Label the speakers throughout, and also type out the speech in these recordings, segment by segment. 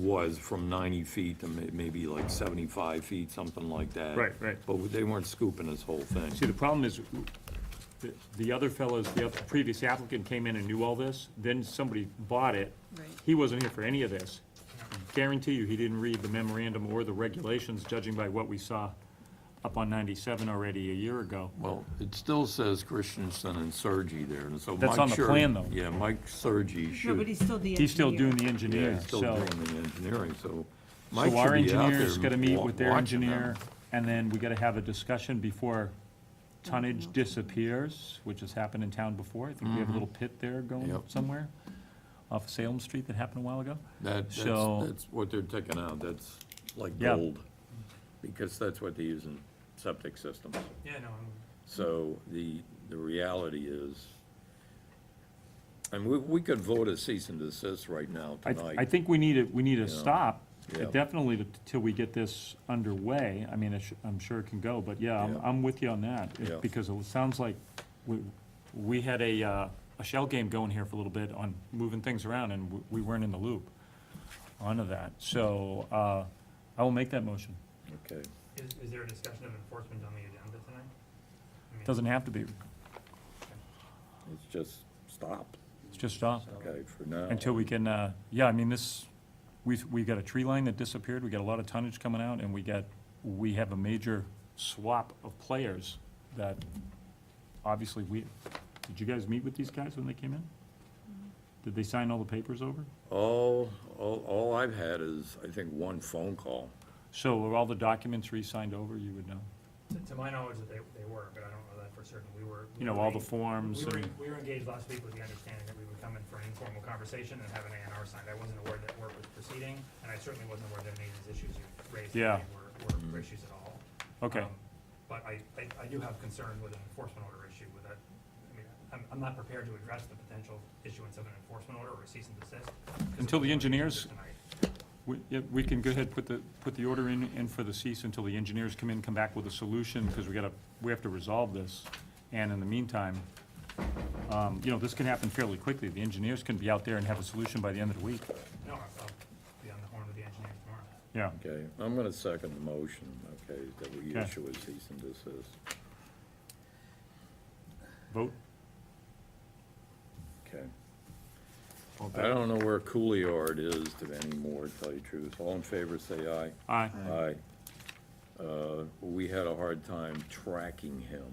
Speaker 1: was from 90 feet to may- maybe like 75 feet, something like that.
Speaker 2: Right, right.
Speaker 1: But they weren't scooping this whole thing.
Speaker 2: See, the problem is, the- the other fellows, the oth- previous applicant came in and knew all this, then somebody bought it.
Speaker 3: Right.
Speaker 2: He wasn't here for any of this. Guarantee you, he didn't read the memorandum or the regulations, judging by what we saw up on 97 already a year ago.
Speaker 1: Well, it still says Christensen and Sergi there, and so Mike
Speaker 2: That's on the
Speaker 1: Sher-
Speaker 2: plan, though.
Speaker 1: Yeah, Mike Sergi
Speaker 3: No,
Speaker 1: should.
Speaker 3: but he's still the engineer.
Speaker 2: He's still doing the
Speaker 1: Yeah,
Speaker 2: engineering,
Speaker 1: he's still
Speaker 2: so.
Speaker 1: doing the engineering, so Mike
Speaker 2: So our
Speaker 1: should be out
Speaker 2: engineer's
Speaker 1: there
Speaker 2: gotta meet
Speaker 1: wa-
Speaker 2: with their
Speaker 1: watching them.
Speaker 2: engineer, and then we gotta have a discussion before tonnage disappears, which has happened in town before. I think we have a little pit there going
Speaker 1: Mm-hmm. Yep.
Speaker 2: somewhere off Salem Street that happened a while ago.
Speaker 1: That, that's,
Speaker 2: So-
Speaker 1: that's what they're taking out, that's like
Speaker 2: Yeah.
Speaker 1: gold, because that's what they use in septic systems.
Speaker 4: Yeah, no, I'm-
Speaker 1: So the, the reality is, and we, we could vote a cease and desist right now
Speaker 2: I,
Speaker 1: tonight.
Speaker 2: I think we need it, we need to stop, uh,
Speaker 1: Yeah.
Speaker 2: definitely to- till we get this underway. I mean, it sh- I'm sure it can go, but yeah, I'm,
Speaker 1: Yeah.
Speaker 2: I'm with you on that. It-
Speaker 1: Yeah.
Speaker 2: Because it sounds like we, we had a, uh, a shell game going here for a little bit on moving things around and w- we weren't in the loop onto that. So, uh, I will make that motion.
Speaker 1: Okay,
Speaker 4: is, is there a discussion of enforcement on the agenda tonight? I mean,
Speaker 2: Doesn't have to be,
Speaker 1: it's just stop,
Speaker 2: it's just stop
Speaker 1: okay, for now.
Speaker 2: until we can, uh, yeah, I mean, this, we've, we got a tree line that disappeared, we got a lot of tonnage coming out and we got, we have a major swap of players that obviously we, did you guys meet with these guys when they came in? Did they sign all the papers over?
Speaker 1: All, all, all I've had is, I think, one phone call.
Speaker 2: So were all the documents re-signed over, you would know?
Speaker 4: To to my knowledge, that they, they were, but I don't know that for certain. We were. we
Speaker 2: You know,
Speaker 4: were
Speaker 2: all the
Speaker 4: en-
Speaker 2: forms
Speaker 4: We were,
Speaker 2: and,
Speaker 4: en- we were engaged last week with the understanding that we would come in for an informal conversation and have an A and R signed. I wasn't aware that work was proceeding, and I certainly wasn't aware that any of these issues you raised
Speaker 2: Yeah.
Speaker 4: tonight were,
Speaker 2: Mm-hmm.
Speaker 4: were issues at all.
Speaker 2: okay,
Speaker 4: Um, But I, I, I do have concern with an enforcement order issue with that. I mean, I'm, I'm not prepared to address the potential issuance of an enforcement order or a cease and desist. 'cause of
Speaker 2: Until the
Speaker 4: what we
Speaker 2: engineers-
Speaker 4: did tonight.
Speaker 2: we, yeah, we can go ahead, put the, put the order in, in for the cease until the engineers come in, come back with a solution, because we gotta, we have to resolve this. And in the meantime, um, you know, this can happen fairly quickly, the engineers can be out there and have a solution by the end of the week,
Speaker 4: No, I'll I'll be on the horn with the engineers tomorrow.
Speaker 2: yeah.
Speaker 1: Okay, I'm gonna second the motion, okay, that we
Speaker 2: Okay.
Speaker 1: issue a cease and desist.
Speaker 2: Vote,
Speaker 1: Okay. I don't know where Cooleyard is to anymore, to tell you the truth. All in favor, say aye.
Speaker 2: aye,
Speaker 1: Aye. Uh, We had a hard time tracking him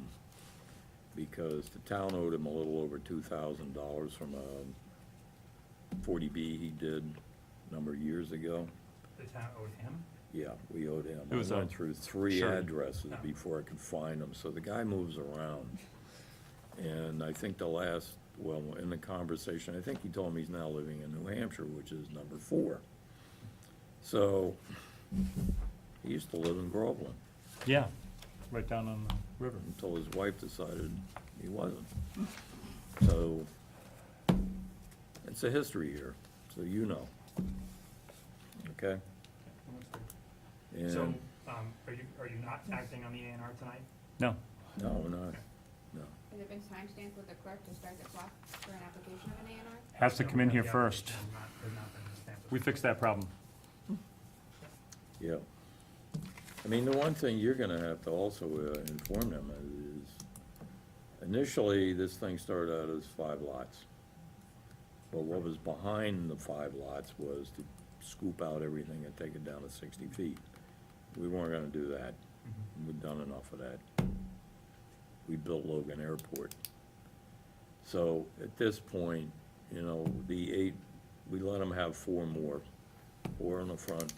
Speaker 1: because the town owed him a little over two thousand dollars from a forty B he did a number of years ago.
Speaker 4: The town owed him?
Speaker 1: Yeah, we owed him.
Speaker 2: It was
Speaker 1: I went
Speaker 2: a-
Speaker 1: through three
Speaker 2: sure.
Speaker 1: addresses before I could find him, so the guy moves around. And I think the last, well, in the conversation, I think he told me he's now living in New Hampshire, which is number four. So, he used to live in Groveland
Speaker 2: yeah, right down on the river,
Speaker 1: until his wife decided he wasn't. So, it's a history here, so you know. Okay?
Speaker 4: So,
Speaker 1: And,
Speaker 4: um, are you, are you not acting on the A and R tonight?
Speaker 2: no,
Speaker 1: no, we're not, no.
Speaker 5: Has it been timestamped with the clerk to start the clock for an application of an A and R?
Speaker 2: has to come in here
Speaker 4: Yeah,
Speaker 2: first,
Speaker 4: there's not- there's not been a stamp of-
Speaker 2: we fixed that problem,
Speaker 1: Yeah. I mean, the one thing you're gonna have to also uh, inform them is, initially, this thing started out as five lots. But what was behind the five lots was to scoop out everything and take it down to sixty feet. We weren't gonna do that. We've done enough of that. We built Logan Airport. So at this point, you know, the eight, we let them have four more, four in the front,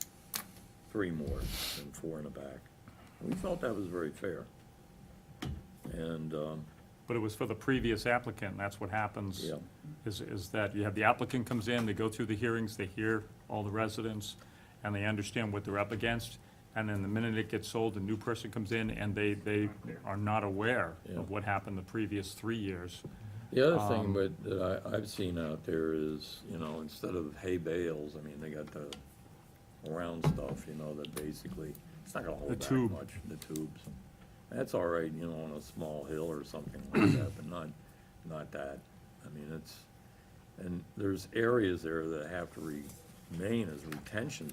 Speaker 1: three more and four in the back. We felt that was very fair. And, um,
Speaker 2: but it was for the previous applicant, and that's what happens.
Speaker 1: yeah,
Speaker 2: is, is that you have the applicant comes in, they go through the hearings, they hear all the residents, and they understand what they're up against, and then the minute it gets sold, a new person comes in, and they, they are not aware
Speaker 1: Yeah.
Speaker 2: of what happened the previous three years.
Speaker 1: the other thing
Speaker 2: Um,
Speaker 1: but that I, I've seen out there is, you know, instead of hay bales, I mean, they got the round stuff, you know, that basically, it's not gonna
Speaker 2: The
Speaker 1: hold back
Speaker 2: tube.
Speaker 1: much, the tubes. That's all right, you know, on a small hill or something like that, but not, not that. I mean, it's, and there's areas there that have to re, main is retention